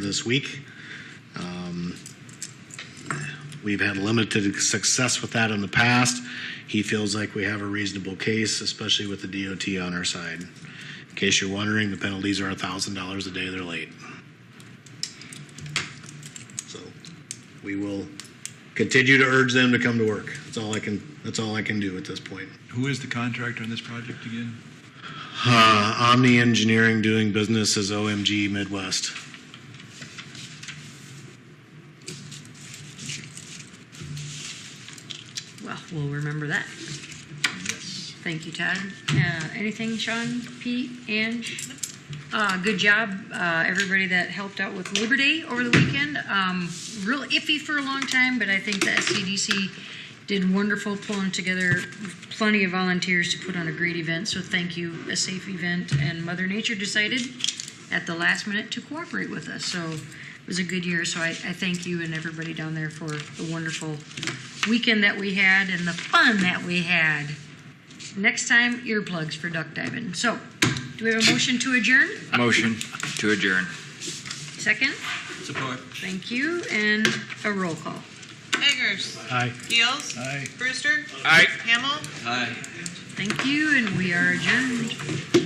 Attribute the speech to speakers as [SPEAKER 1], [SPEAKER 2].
[SPEAKER 1] this week. Um, We've had limited success with that in the past. He feels like we have a reasonable case, especially with the DOT on our side. In case you're wondering, the penalties are $1,000 a day they're late. So we will continue to urge them to come to work. That's all I can, that's all I can do at this point.
[SPEAKER 2] Who is the contractor on this project again?
[SPEAKER 1] Uh, Omni Engineering doing business as OMG Midwest.
[SPEAKER 3] Well, we'll remember that.
[SPEAKER 2] Yes.
[SPEAKER 3] Thank you, Todd. Uh, anything, Sean, Pete, Ange? Uh, good job, uh, everybody that helped out with Labor Day over the weekend. Um, real iffy for a long time, but I think the SCDC did wonderful pulling together plenty of volunteers to put on a great event. So thank you, a safe event, and Mother Nature decided at the last minute to cooperate with us. So it was a good year. So I, I thank you and everybody down there for the wonderful weekend that we had and the fun that we had. Next time, earplugs for duck diving. So, do we have a motion to adjourn?
[SPEAKER 4] Motion to adjourn.
[SPEAKER 3] Second?
[SPEAKER 2] Support.
[SPEAKER 3] Thank you, and a roll call.
[SPEAKER 5] Eggers.
[SPEAKER 1] Aye.
[SPEAKER 5] Gills.
[SPEAKER 2] Aye.
[SPEAKER 5] Brewster.
[SPEAKER 4] Aye.
[SPEAKER 5] Hamel.
[SPEAKER 2] Aye.
[SPEAKER 3] Thank you, and we are adjourned.